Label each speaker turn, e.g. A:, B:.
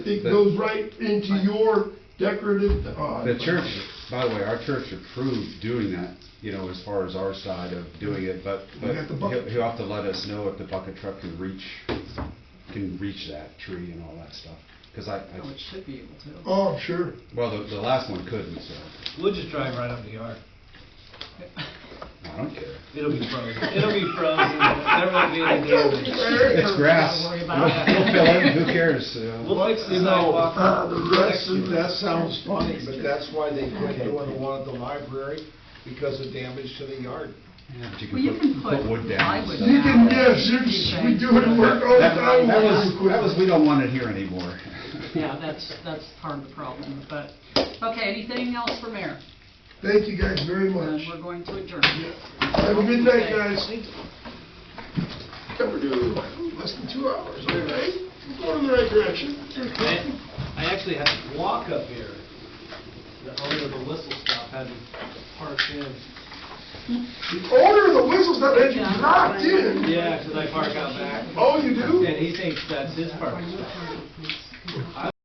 A: it
B: The-
A: goes right into your decorative, uh.
B: The church, by the way, our church approved doing that, you know, as far as our side of doing it, but,
A: We
B: but
A: got the
B: he'll,
A: bucket.
B: he'll have to let us know if the bucket truck can reach, can reach that tree and all that stuff. Cause I,
C: Oh, it
B: I,
C: should be able to.
A: Oh, sure.
B: well, the, the last one couldn't, so,
D: We'll just drive right up the yard.
B: I don't care.
D: It'll be frozen. It'll be frozen. There won't be any damage.
B: It's grass.
C: Worry
B: We'll
C: about
B: we'll fill it, who cares? you know?
D: We'll fix the
A: You know,
D: sidewalk.
A: uh, The rest of, that sounds funny,
E: But that's why they quit doing the one at the library, because of damage to the yard.
B: Yeah, but
C: Well, you
B: put-
C: can
B: Put
C: put
B: wood down. and
C: plywood
B: stuff.
C: down.
A: You can, yes, you're, we do it, work Oh. all the
B: That
A: time.
B: that
A: we're
B: was, that was, we don't want it here anymore.
C: Yeah, that's, that's part of the problem, but, okay, anything else for mayor?
A: Thank you guys very much.
C: And we're going to adjourn.
A: Have a good night,
C: Okay.
A: guys. Covered uh, less than two hours, all right? We're going in the right direction.
D: I I actually had to walk up here. The owner of the whistle stop had me parked in.
A: The owner of the whistle's not that you knocked in.
D: Yeah, 'cause I park out back.
A: Oh, you do?
D: And he thinks that's his parking spot.